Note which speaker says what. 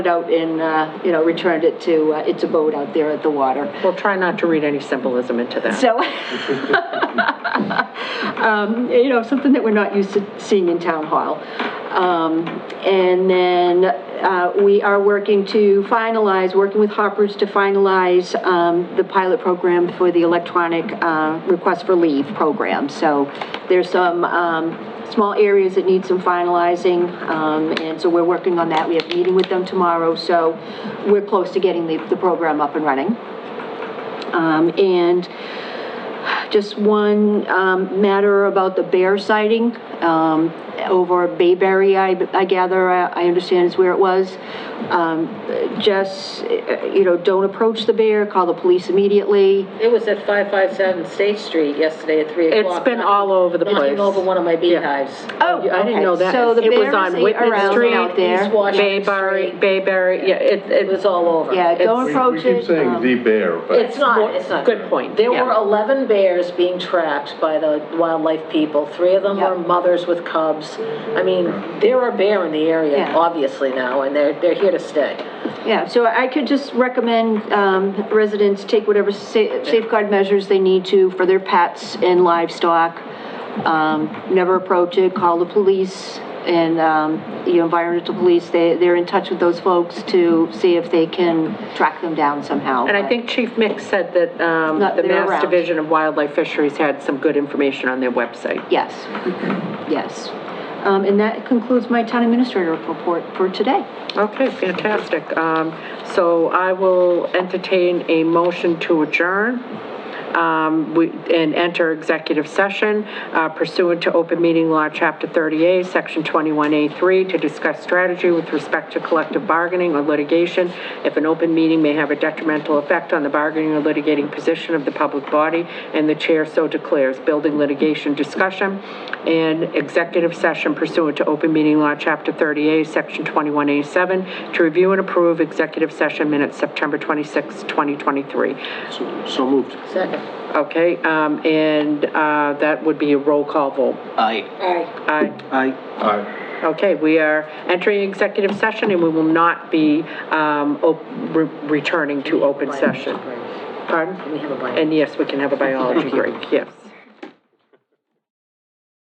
Speaker 1: it out and, uh, you know, returned it to, uh, it's a boat out there at the water.
Speaker 2: We'll try not to read any symbolism into that.
Speaker 1: So, um, you know, something that we're not used to seeing in town hall. Um, and then, uh, we are working to finalize, working with Hoppers to finalize, um, the pilot program for the electronic, uh, request for leave program. So there's some, um, small areas that need some finalizing, um, and so we're working on that. We have a meeting with them tomorrow, so we're close to getting the, the program up and running. Um, and just one um, matter about the bear sighting um, over Bayberry, I I gather, I I understand is where it was. Um, Just, uh, you know, don't approach the bear, call the police immediately.
Speaker 3: It was at 557 State Street yesterday at 3
Speaker 2: It's
Speaker 3: o'clock.
Speaker 2: been all over the
Speaker 3: Knocking
Speaker 2: place. Uh,
Speaker 3: over one of my beehives.
Speaker 1: Oh,
Speaker 2: I didn't know that.
Speaker 1: So the
Speaker 2: It was
Speaker 1: bear
Speaker 2: on
Speaker 1: is
Speaker 2: Whitman
Speaker 1: around
Speaker 2: Street,
Speaker 1: out there.
Speaker 3: East Washington
Speaker 2: Bayberry,
Speaker 3: Street.
Speaker 2: Bayberry, yeah, it,
Speaker 3: It was all over.
Speaker 1: Yeah, don't
Speaker 2: It's-
Speaker 4: We-
Speaker 1: approach it.
Speaker 4: We keep saying
Speaker 1: um,
Speaker 4: the bear, but
Speaker 3: It's not, it's not.
Speaker 2: Good point,
Speaker 3: There
Speaker 2: yeah.
Speaker 3: were 11 bears being tracked by the wildlife people. Three of them
Speaker 1: Yeah.
Speaker 3: were mothers with cubs. I mean, there are bear in the area,
Speaker 1: Yeah.
Speaker 3: obviously now, and they're, they're here to stay.
Speaker 1: Yeah, so I could just recommend um, residents take whatever sa- safeguard measures they need to for their pets and livestock. Um, Never approach it, call the police and um, the environmental police. They, they're in touch with those folks to see if they can track them down somehow.
Speaker 2: and I think Chief Mick said that, um,
Speaker 1: Not-
Speaker 2: the
Speaker 1: they're
Speaker 2: Mass
Speaker 1: around.
Speaker 2: Division of Wildlife Fisheries had some good information on their website.
Speaker 1: Yes, yes. Um, And that concludes my town administrator report for today.
Speaker 2: Okay, fantastic. Um, so I will entertain a motion to adjourn, um, we- and enter executive session uh, pursuant to open meeting law, chapter 30A, section 21A3, to discuss strategy with respect to collective bargaining or litigation. If an open meeting may have a detrimental effect on the bargaining or litigating position of the public body, and the chair so declares, building litigation discussion and executive session pursuant to open meeting law, chapter 30A, section 21A7, to review and approve executive session minutes, September 26, 2023.
Speaker 4: so moved.
Speaker 3: Second.
Speaker 2: Okay, um, and, uh, that would be a roll call vote.
Speaker 5: Aye.
Speaker 3: All right.
Speaker 2: Aye.
Speaker 4: Aye.
Speaker 2: Okay, we are entering executive session and we will not be, um, op- re- returning to open session. Pardon?
Speaker 3: We have a biology.
Speaker 2: And yes, we can have a biology break, yes.